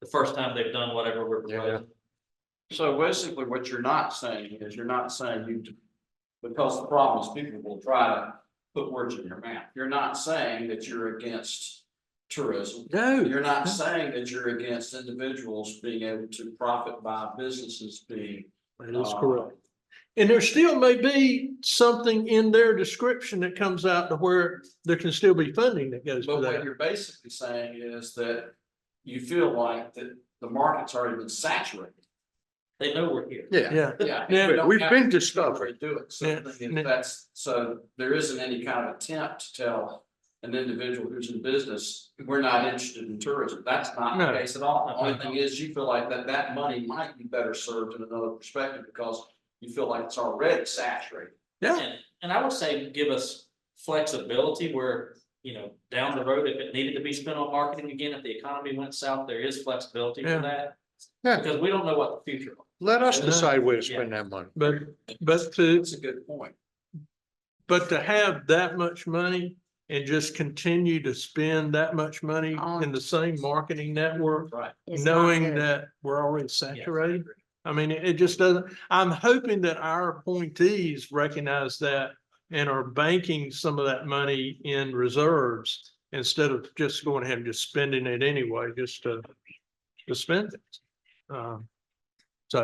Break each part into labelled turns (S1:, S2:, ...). S1: the first time they've done whatever we're
S2: Yeah.
S1: proposing.
S3: So basically, what you're not saying is you're not saying you, because the problem is people will try to put words in your mouth. You're not saying that you're against tourism.
S2: No,
S3: You're not saying that you're against individuals being able to profit by businesses being.
S4: That is correct. And there still may be something in their description that comes out to where there can still be funding that goes
S3: But
S4: for
S3: what
S4: that.
S3: you're basically saying is that you feel like that the market's already been saturated.
S1: They know we're here.
S2: yeah,
S4: Yeah,
S3: Yeah.
S4: Yeah,
S3: we don't
S2: we've
S3: have
S2: been
S3: to
S2: discovered.
S3: Do it, so
S4: Yeah,
S3: the thing
S4: yeah.
S3: is that's, so there isn't any kind of attempt to tell an individual who's in business, we're not interested in tourism, that's not the
S4: No.
S3: case at all. The Only
S1: No.
S3: thing is, you feel like that that money might be better served in another perspective, because you feel like it's already saturated.
S4: Yeah.
S1: And, and I would say give us flexibility where, you know, down the road, if it needed to be spent on marketing again, if the economy went south, there is flexibility
S4: Yeah.
S1: for that.
S2: Yeah.
S1: Because we don't know what the future. holds.
S2: let us
S4: Yeah.
S2: decide where to spend that money.
S4: but, but to,
S3: That's a good point.
S4: but to have that much money and just continue to spend that much money
S5: On-
S4: in the same marketing network,
S3: Right.
S5: It's not
S4: knowing
S5: good.
S4: that we're already saturated. I mean, it it just doesn't, I'm hoping that our appointees recognize that and are banking some of that money in reserves instead of just going ahead and just spending it anyway, just to, to spend it. Um, So,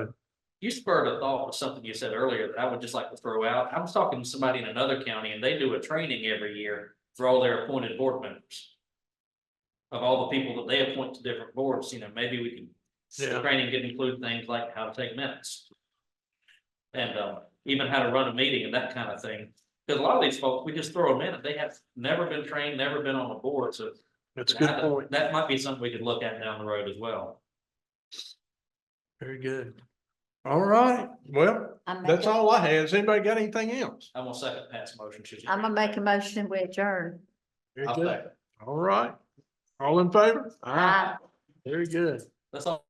S1: You spurred a thought with something you said earlier that I would just like to throw out. I was talking to somebody in another county and they do a training every year for all their appointed board members. Of all the people that they appoint to different boards, you know, maybe we can, the
S4: Yeah.
S1: training could include things like how to take minutes. And, um, even how to run a meeting and that kind of thing. Because a lot of these folks, we just throw them in, and they have never been trained, never been on a board, so.
S4: that's a good
S1: that-
S4: point.
S1: That might be something we could look at down the road as well.
S4: Very good. All right, well,
S5: I make
S4: that's
S5: a-
S4: all I have. Has anybody got anything else?
S1: I'm gonna second Pat's motion. she's-
S5: I'm gonna make a motion we adjourn.
S4: Very
S1: I'll
S4: good.
S1: second.
S4: All right. All in favor?
S5: Aye.
S4: Very good.
S1: That's all.